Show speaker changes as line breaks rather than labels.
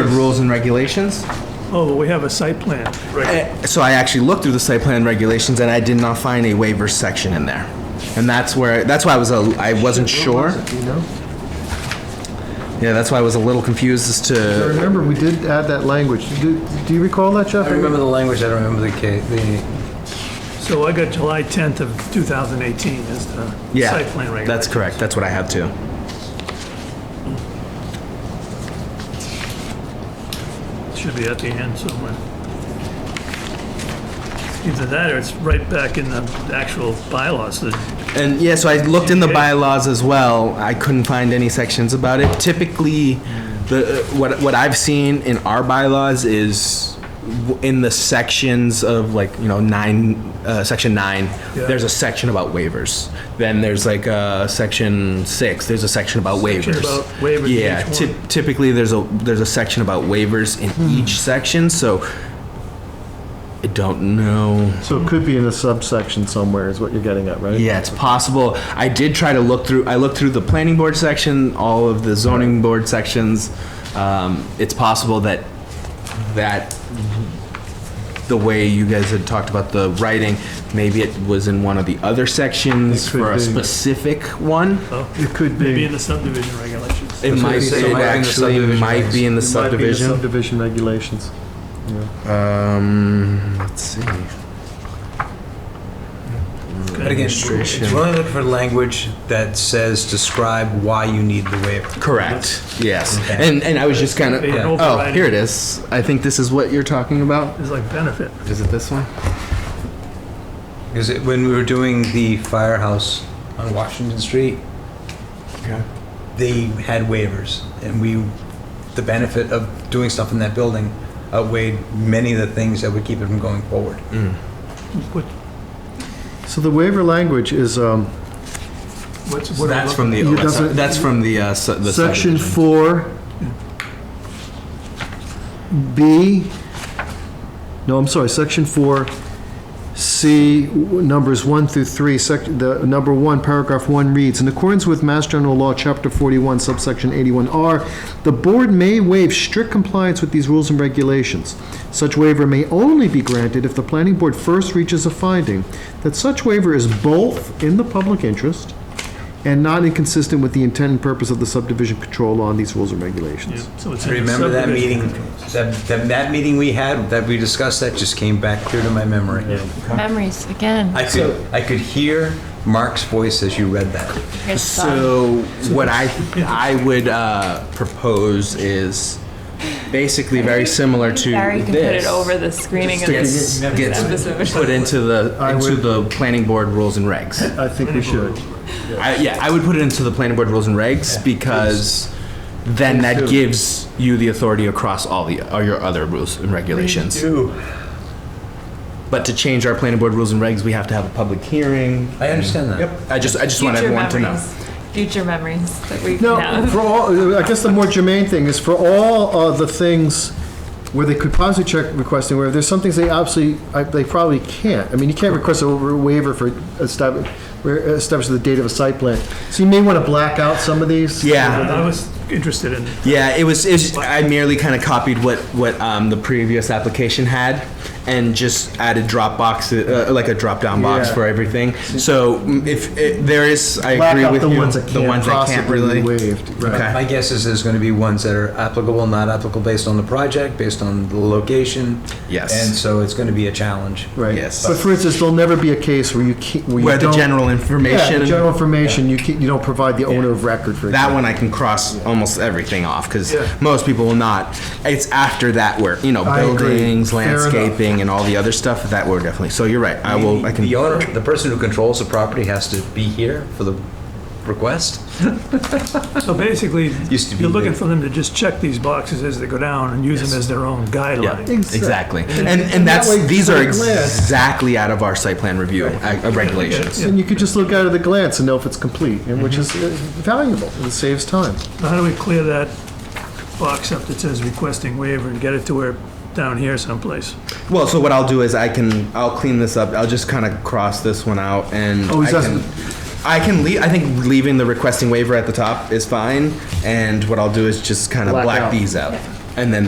of rules and regulations.
Oh, we have a site plan. Right.
Eh, So I actually looked through the site plan regulations and I did not find a waiver section in there. And that's where, that's why I was, a I wasn't sure. Yeah, that's why I was a little confused as
I
to,
remember we did add that language. Do do you recall that, Jeff?
I remember the language, I don't remember the ca, the,
Uh, So I got July 10th of 2018 as the
yeah.
site plan regulation.
That's correct, that's what I have too.
Should be at the end somewhere. Either that or it's right back in the actual bylaws. The-
And yeah, so I looked in the
Okay.
bylaws as well. I couldn't find any sections about it. Typically, the what what I've seen in our bylaws is w- in the sections of like you know nine, uh, section nine.
Yeah.
There's a section about waivers. Then there's like uh, section six. There's a section about
Section
waivers.
about waivers in
yeah.
each
ty-
one. Hmm.
typically, there's a there's a section about waivers in each section. So I don't know.
So it could be in a subsection somewhere, is what you're getting at, right?
Yeah, it's possible. I did try to look through, I looked through the planning board section, all of the zoning board sections. Um, It's possible that, that, the way you guys had talked about the writing, maybe it was in one of the other sections
It could
for a
be.
specific one.
oh,
It could
Maybe in
be.
the subdivision regulations.
It might,
So it
it actually
might be in the subdivision
might be in the
It might be in the
subdivision.
Subdivision regulations.
Um, let's see.
but again, it's really looking for language that says, describe why you need the waiver.
Correct, yes.
Okay.
And, and I was just kind of,
Be an
oh,
overriding-
here it is. I think this is what you're talking about.
It's like benefit.
Is it this one?
Because it- when we were doing the firehouse on Washington Street,
Okay.
they had waivers, and we, the benefit of doing stuff in that building outweighed many of the things that would keep it from going forward.
What-
So the waiver language is um,
What's,
So
what
that's from the,
You
that's,
doesn't-
that's from the, uh, su- the
section
subdivision.
four, B, no, I'm sorry, section four, C, w- numbers one through three, sec, the number one, paragraph one reads, in accordance with Mass General Law, Chapter 41, subsection 81R, the board may waive strict compliance with these rules and regulations. Such waiver may only be granted if the planning board first reaches a finding that such waiver is both in the public interest and not inconsistent with the intent and purpose of the subdivision control law and these rules and regulations.
So it's in the
Remember that meeting,
subdivision.
that, that- that meeting we had, that we discussed, that just came back clear to my memory.
Memories again.
I could, I could hear Mark's voice as you read that.
Here's some.
So what I, I would, uh, propose is basically very similar to
Barry can put it
this.
over the screening of
Gets,
this.
gets put into the, into the planning board rules and regs.
I think we should.
I, yeah, I would put it into the planning board rules and regs because then that gives you the authority across all the, all your other rules and regulations. But to change our planning board rules and regs, we have to have a public hearing.
I understand that.
Yep, I just, I just want
Future
everyone to know.
memories. Future memories that we can
No,
have.
for all, I guess the more germane thing is for all of the things where they could possibly check requesting waiver, there's some things they absolutely, I- they probably can't. I mean, you can't request a waiver for establish, where- establish the date of a site plan. So you may want to black out some of these.
Yeah,
I was interested in,
yeah. It was. It was I merely kind of copied what what um, the previous application had, and just added drop boxes, uh, like a drop down box
Yeah.
for everything. So mm, if it, there is, I
Black
agree
out
with
the
you.
ones that
the
can't
ones that can't
possibly
really.
be waived. right.
Okay.
My guess is there's gonna be ones that are applicable, not applicable based on the project, based on the location.
Yes.
And so it's gonna be a challenge.
Right.
Yes.
But for instance, there'll never be a case where you can't, where you
Where the
don't-
general information.
Yeah, the general information, you can't, you don't provide the owner of record, for
that
example.
one I can cross almost everything off because most people will not. It's after that where you know
I agree.
buildings,
Fair enough.
landscaping, and all the other stuff that we're definitely. So you're right. I will. I can.
The owner, the person who controls the property has to be here for the request.
so basically,
Used to be
you're looking
the-
for them to just check these boxes as they go down and use them as their own
Yeah,
guideline.
exactly. And,
and
and
that
that's,
way,
these
at
are
a glance-
exactly out of our site plan review uh, uh, regulations.
And you could just look at it at a glance and know if it's complete, and which
Mm-hmm.
is uh, valuable, and saves time.
Now, How do we clear that box up that says requesting waiver and get it to where, down here someplace?
Well, so what I'll do is I can, I'll clean this up, I'll just kind of cross this one out and
Oh,
I
he's
can,
asking-
I can leave, I think leaving the requesting waiver at the top is fine. And what I'll do is just kind of
Black
black
out.
these out. And then